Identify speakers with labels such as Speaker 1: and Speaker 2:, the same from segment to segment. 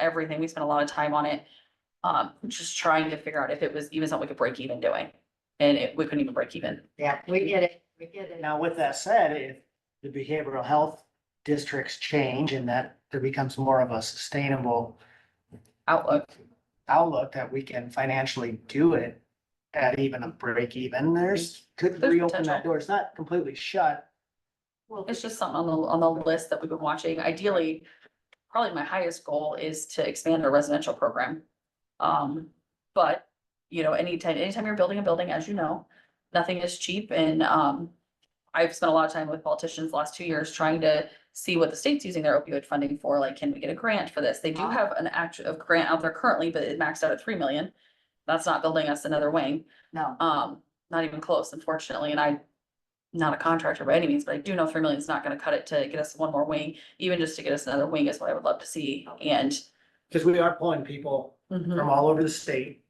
Speaker 1: everything. We spent a lot of time on it. Um, just trying to figure out if it was even something we could break even doing. And it, we couldn't even break even.
Speaker 2: Yeah, we get it, we get it.
Speaker 3: Now, with that said, if the behavioral health districts change and that there becomes more of a sustainable
Speaker 1: Outlook,
Speaker 3: outlook that we can financially do it at even a break even, there's, could
Speaker 1: There's
Speaker 3: reopen that
Speaker 1: potential.
Speaker 3: door. It's not completely shut.
Speaker 2: Well,
Speaker 1: it's just something on the, on the list that we've been watching. Ideally, probably my highest goal is to expand our residential program. Um, but, you know, anytime, anytime you're building a building, as you know, nothing is cheap and, um, I've spent a lot of time with politicians the last two years trying to see what the state's using their opioid funding for, like, can we get a grant for this? They do
Speaker 2: Wow.
Speaker 1: have an act of grant out there currently, but it maxed out at three million. That's not building us another wing.
Speaker 2: No.
Speaker 1: Um, not even close, unfortunately, and I, not a contractor by any means, but I do know three million is not gonna cut it to get us one more wing. Even just to get us another wing is what I would love to see, and.
Speaker 3: Because we are pulling people
Speaker 1: Mm-hmm.
Speaker 3: from all over the state.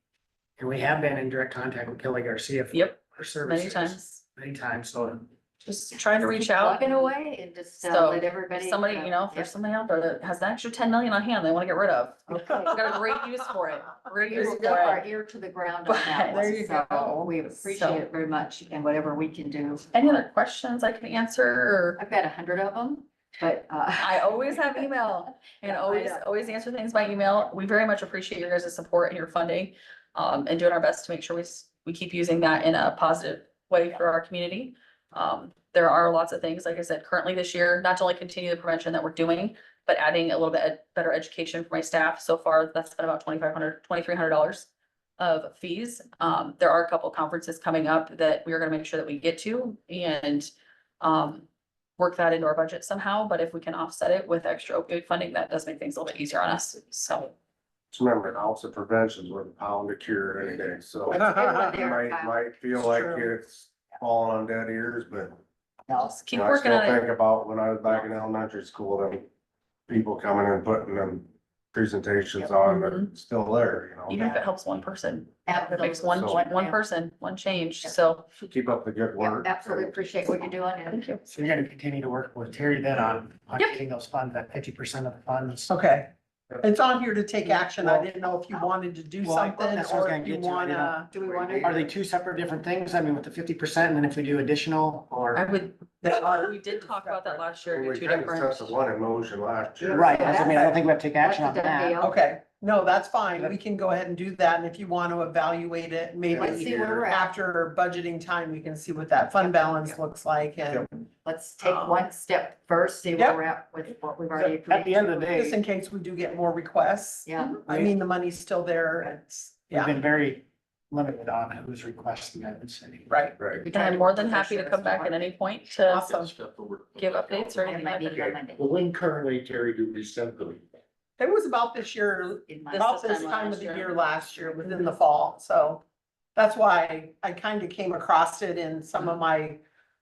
Speaker 3: And we have been in direct contact with Kelly Garcia. for
Speaker 1: Yep,
Speaker 3: Her services.
Speaker 1: many times,
Speaker 3: Many times, so.
Speaker 1: just trying to reach
Speaker 2: Keep
Speaker 1: out.
Speaker 2: Plugging away and just uh,
Speaker 1: So,
Speaker 2: let everybody.
Speaker 1: If Somebody, you know, if there's somebody out there that has an extra ten million on hand they wanna get rid of, I've got a great use for it, great use
Speaker 2: You're
Speaker 1: for it.
Speaker 2: ear to the ground on that
Speaker 1: But-
Speaker 3: There you
Speaker 2: one, so
Speaker 3: go.
Speaker 2: we
Speaker 1: So-
Speaker 2: appreciate it very much and whatever we can do.
Speaker 1: Any other questions I can answer, or?
Speaker 2: I've got a hundred of them, but. uh,
Speaker 1: I always have email and
Speaker 2: Yeah, I
Speaker 1: always,
Speaker 2: know.
Speaker 1: always answer things by email. We very much appreciate your guys' support and your funding. Um, and doing our best to make sure we, s- we keep using that in a positive way for our community. Um, there are lots of things, like I said, currently this year, not to only continue the prevention that we're doing, but adding a little bit ed- better education for my staff. So far, that's been about twenty-five hundred, twenty-three hundred dollars of fees. Um, there are a couple conferences coming up that we are gonna make sure that we get to and, um, work that into our budget somehow, but if we can offset it with extra opioid funding, that does make things a little bit easier on us, so.
Speaker 4: Just remember, an ounce of prevention is worth a pound of cure any day, so.
Speaker 2: That's a good one there,
Speaker 4: Might,
Speaker 2: Kyle.
Speaker 4: might feel
Speaker 3: It's
Speaker 4: like
Speaker 3: true.
Speaker 4: it's falling on dead ears, but.
Speaker 1: just Keep
Speaker 4: I
Speaker 1: working
Speaker 4: still
Speaker 1: on it,
Speaker 4: Think about when I was back in elementary school, them people coming and putting them presentations on,
Speaker 1: Mhm.
Speaker 4: but still there, you
Speaker 1: even
Speaker 4: know?
Speaker 1: if it helps one person, if it
Speaker 2: Absolutely.
Speaker 1: makes one,
Speaker 4: So-
Speaker 1: one person, one change, so.
Speaker 4: Keep up the good
Speaker 2: Yeah,
Speaker 4: work.
Speaker 2: Absolutely appreciate what you're doing and
Speaker 1: Thank you.
Speaker 3: So you're gonna continue to work with Terry then on, on
Speaker 1: Yep.
Speaker 3: getting those funds, that fifty percent of the funds.
Speaker 5: Okay, it's on here to take action. I
Speaker 3: Well-
Speaker 5: didn't know if you wanted to do
Speaker 3: Well, I-
Speaker 5: something
Speaker 3: that's what I was
Speaker 5: or
Speaker 3: gonna
Speaker 5: if you
Speaker 3: get to. I didn't-
Speaker 5: wanna.
Speaker 2: do we want to?
Speaker 3: Are they two separate different things? I mean, with the fifty percent and then if we do additional
Speaker 1: I
Speaker 3: or?
Speaker 1: would,
Speaker 5: They are-
Speaker 1: we did talk about that last year,
Speaker 4: Well,
Speaker 1: you're
Speaker 4: uh, We
Speaker 1: two
Speaker 4: kind of
Speaker 1: different.
Speaker 4: touched the one emotion last year.
Speaker 3: Right, that's- I mean, I don't think we have to take action on
Speaker 2: That's a done
Speaker 3: that.
Speaker 2: deal.
Speaker 5: Okay, no, that's fine. We can go ahead and do that. And if you want to evaluate
Speaker 2: Let's
Speaker 5: it, maybe
Speaker 2: see where we're at.
Speaker 5: after budgeting time, we can see what that fund balance looks like and
Speaker 2: Let's
Speaker 1: Oh.
Speaker 2: take one step first, see where
Speaker 5: Yep.
Speaker 2: we're at with what we've already. agreed
Speaker 3: At the end of the
Speaker 2: to.
Speaker 5: just
Speaker 3: day,
Speaker 5: in case we do get more requests.
Speaker 2: Yeah,
Speaker 5: I mean, the money's still there. It's,
Speaker 3: we've
Speaker 5: yeah,
Speaker 3: been very limited on who's requesting that in the city.
Speaker 5: right.
Speaker 4: Right.
Speaker 1: And I'm more than happy to come back at any point to
Speaker 5: Awesome.
Speaker 1: give updates or
Speaker 2: it
Speaker 1: anything
Speaker 2: might
Speaker 1: like
Speaker 2: be
Speaker 1: that.
Speaker 2: on Monday.
Speaker 6: Well, when currently, Terry, do we send them?
Speaker 5: It was about this year,
Speaker 2: In
Speaker 1: This-
Speaker 2: my-
Speaker 5: about
Speaker 1: this
Speaker 5: this
Speaker 1: time
Speaker 5: time
Speaker 1: last
Speaker 5: of the
Speaker 1: year.
Speaker 5: year last year, within the fall. So that's why I kind of came across it in some of my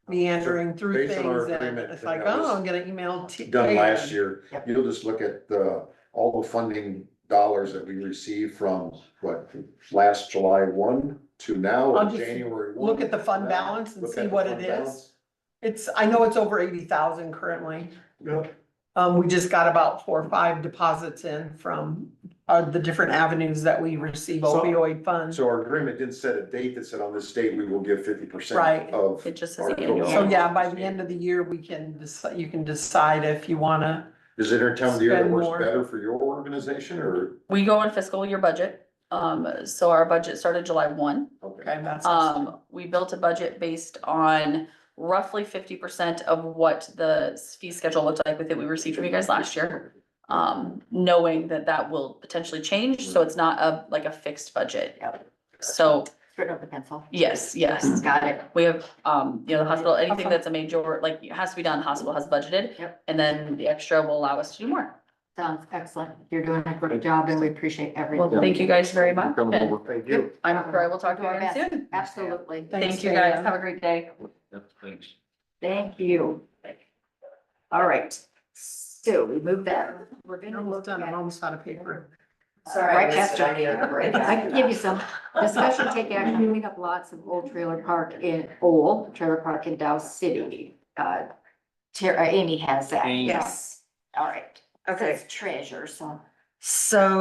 Speaker 5: meandering through
Speaker 6: Based on our
Speaker 5: things and
Speaker 6: agreement
Speaker 5: it's
Speaker 6: that
Speaker 5: like,
Speaker 6: that
Speaker 5: oh,
Speaker 6: was
Speaker 5: I'm gonna email. T-
Speaker 6: Done last
Speaker 5: Dan.
Speaker 6: year,
Speaker 2: Yep.
Speaker 6: you'll just look at the, all the funding dollars that we received from, what, last July one to now,
Speaker 5: I'll
Speaker 6: or
Speaker 5: just
Speaker 6: January one.
Speaker 5: Look at the fund
Speaker 6: Now,
Speaker 5: balance and
Speaker 6: look
Speaker 5: see
Speaker 6: at the
Speaker 5: what
Speaker 6: fund
Speaker 5: it is.
Speaker 6: balance.
Speaker 5: It's, I know it's over eighty thousand currently.
Speaker 6: Yep.
Speaker 5: Um, we just got about four or five deposits in from, uh, the different avenues that we receive
Speaker 6: So-
Speaker 5: opioid funds.
Speaker 6: So our agreement didn't set a date that said on this date, we will give fifty
Speaker 5: Right.
Speaker 6: percent of.
Speaker 1: It just says
Speaker 6: our total
Speaker 1: annual.
Speaker 5: So
Speaker 6: balance.
Speaker 5: yeah, by the end of the year, we can, deci- you can decide if you wanna,
Speaker 6: Is there a time of the year that
Speaker 5: Spend
Speaker 6: works
Speaker 5: more.
Speaker 6: better for your organization, or?
Speaker 1: We go on fiscal year budget, um, so our budget started July one.
Speaker 5: okay, that's.
Speaker 1: Um, we built a budget based on roughly fifty percent of what the fee schedule looked like with it we received from you guys last year. Um, knowing that that will potentially change, so it's not a, like a fixed budget.
Speaker 2: Yep.
Speaker 1: So,
Speaker 2: Straight up the pencil.
Speaker 1: yes, yes,
Speaker 2: Got it.
Speaker 1: we have, um, you know, the hospital, anything
Speaker 5: Okay.
Speaker 1: that's a major, like, it has to be done, the hospital has budgeted.
Speaker 2: Yep.
Speaker 1: And then the extra will allow us to do more.
Speaker 2: Sounds excellent. You're doing a great job and we appreciate
Speaker 1: Well,
Speaker 2: everything. Um,
Speaker 1: thank you guys very much.
Speaker 6: Coming
Speaker 1: and
Speaker 6: over, thank you.
Speaker 1: I'm sure I will talk to you again soon.
Speaker 2: Absolutely.
Speaker 5: Thanks,
Speaker 1: Thank you guys.
Speaker 5: Dan.
Speaker 1: Have a great day.
Speaker 2: Thank you. All right. So we move that. We're
Speaker 5: I
Speaker 2: gonna
Speaker 5: almost
Speaker 2: look
Speaker 5: done,
Speaker 2: at.
Speaker 5: I'm almost out of paper.
Speaker 2: Right after. I can give you some. Discussion take action, clean up lots of old trailer park in, old trailer park in Dow City. Uh, Tara, Amy has that.
Speaker 7: Amy.
Speaker 2: Yes. All right.
Speaker 7: Okay.
Speaker 2: Says treasure, so
Speaker 5: So